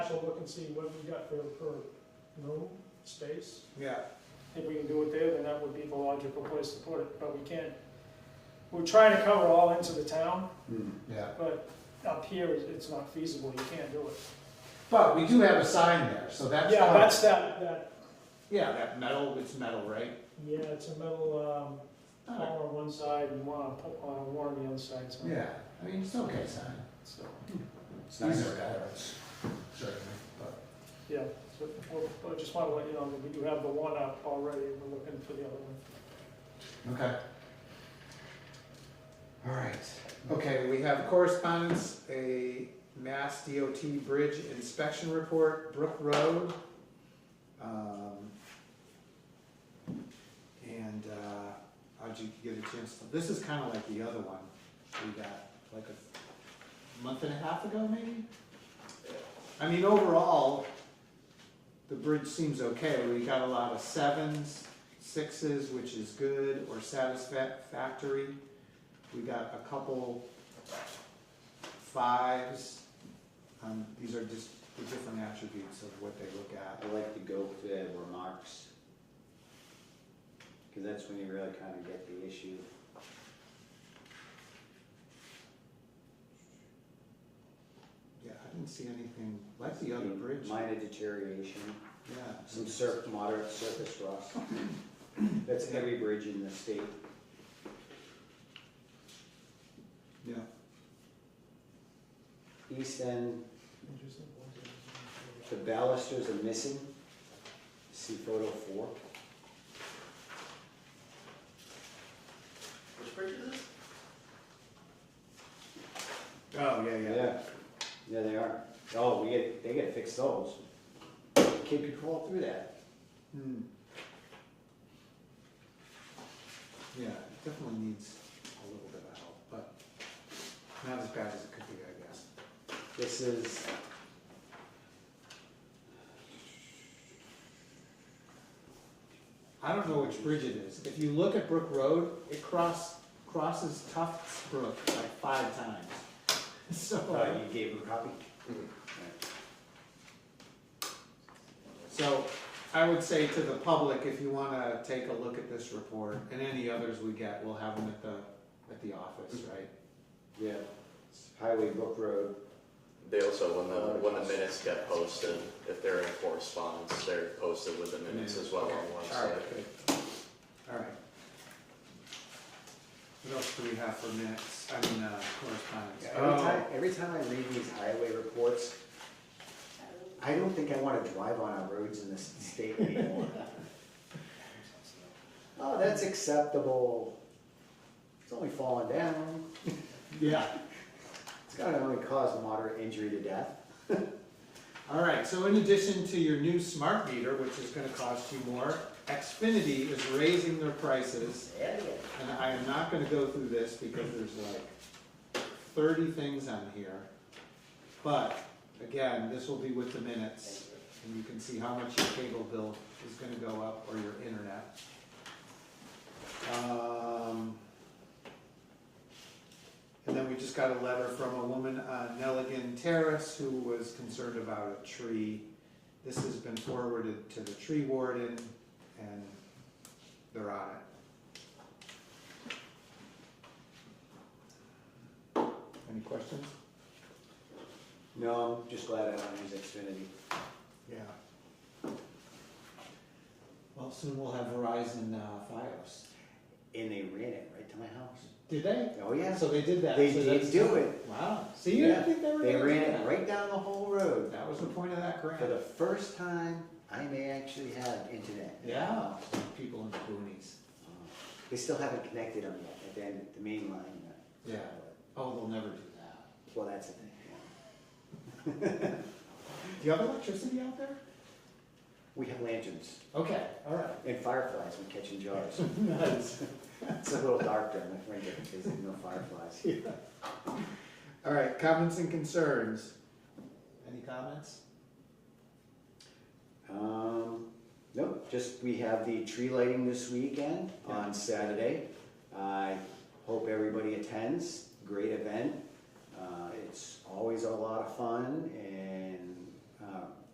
we'll look and see what we got for, per room, space. Yeah, If we can do it there, then that would be the logical place to put it, but we can't. We're trying to cover all ends of the town, yeah. but up here, it- it's not feasible, you can't do it. But we do have a sign there, so that's. Yeah, kind of- that's that, that, Yeah, that metal, it's metal, right? yeah, it's a metal, um, Oh, column on one side and one on, po- on a warren on the other side, so. Yeah, I mean, it's okay sign. So, It's nicer better. Certainly, but, yeah, so, we'll- I just wanna let you know that we do have the one up already, we're looking for the other one. okay. All right, okay, we have correspondence, a Mass DOT bridge inspection report, Brook Road. Um, And, uh, how'd you get a chance to, this is kinda like the other one we got, like a month and a half ago, maybe? I mean, overall, the bridge seems okay, we got a lot of sevens, sixes, which is good, or satisfactory. We got a couple fives, um, these are just the different attributes of what they look at. I like to go to the remarks. Cause that's when you really kinda get the issue. Yeah, I didn't see anything like the other bridge. Minor deterioration, Yeah. some surf, moderate surface rust. That's every bridge in the state. Yeah, East end, the balusters are missing. See photo four. Which bridge is this? oh, yeah, yeah. Yeah, yeah, they are. Oh, we get, they gotta fix those. Kid could crawl through that. Hmm. Yeah, it definitely needs a little bit of help, but not as bad as it could be, I guess. This is. I don't know which bridge it is. If you look at Brook Road, it cross, crosses Tufts Brook like five times. Uh, So, you gave him a copy? so I would say to the public, if you wanna take a look at this report and any others we get, we'll have them at the, at the office, right? Yeah, Highway Brook Road. They also, when the, when the minutes get posted, if they're in correspondence, they're posted with the minutes as well on Okay, one All side. right, good. All right. What else do we have for minutes, I mean, uh, correspondence? Oh. Every time, every time I read these highway reports, I don't think I wanna drive on our roads in this state anymore. Oh, that's acceptable. It's only falling down. Oh, Yeah. It's gonna only cause moderate injury to death. All right, so in addition to your new smart meter, which is gonna cost you more, Xfinity is raising their prices. Yeah, And I am not gonna go through this because there's like thirty things on here. But again, this will be with the minutes and you can see how much your cable bill is gonna go up or your internet. Um, And then we just got a letter from a woman on Nelligan Terrace who was concerned about a tree. This has been forwarded to the tree warden and they're on it. Any questions? No, I'm just glad I don't use Xfinity. Yeah. Well, soon we'll have Verizon uh, Fios. And they ran it right to my house. Did they? Oh, yeah. So they did that. They so did that's- do it. Wow. See, you didn't Yeah, think they were They gonna do ran it that. right down the whole road. That was the point of that For the grant. first time, I may actually have internet. Yeah, people in the boonies. They still haven't connected them yet, at the end, the main line. uh, Yeah. Oh, they'll never do that. Well, that's the thing, yeah. Do you have electricity out there? We have lanterns Okay, all right. and fireflies we catch in jars. Nice. It's a little dark during the winter because there's no fireflies. All right, comments and concerns. Any comments? Um, nope, just, we have the tree lighting this weekend on Saturday. I hope everybody attends, great event. Uh, it's always a lot of fun uh,